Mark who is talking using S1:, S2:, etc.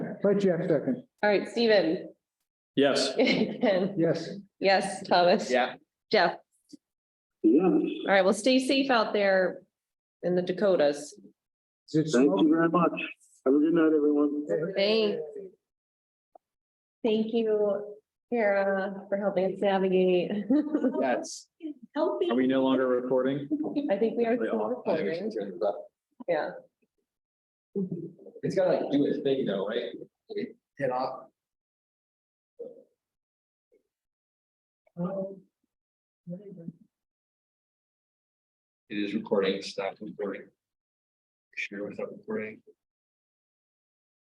S1: Right, Jack, second.
S2: All right, Stephen.
S3: Yes.
S2: Ken?
S1: Yes.
S2: Yes, Thomas.
S3: Yeah.
S2: Jeff.
S4: Yeah,
S2: All right, well, stay safe out there in the Dakotas.
S1: Is it
S4: thank
S1: smoke?
S4: you very much. Have a good night, everyone.
S2: Thanks. Thank you, Kara, for helping us navigate.
S3: Yes. Are
S2: Helping.
S3: we no longer recording?
S2: I think we are
S3: They
S2: still
S3: are.
S2: recording. Yeah.
S5: It's gotta like do its thing though, right? It- Hit off. It is recording, it's not recording. Share without recording.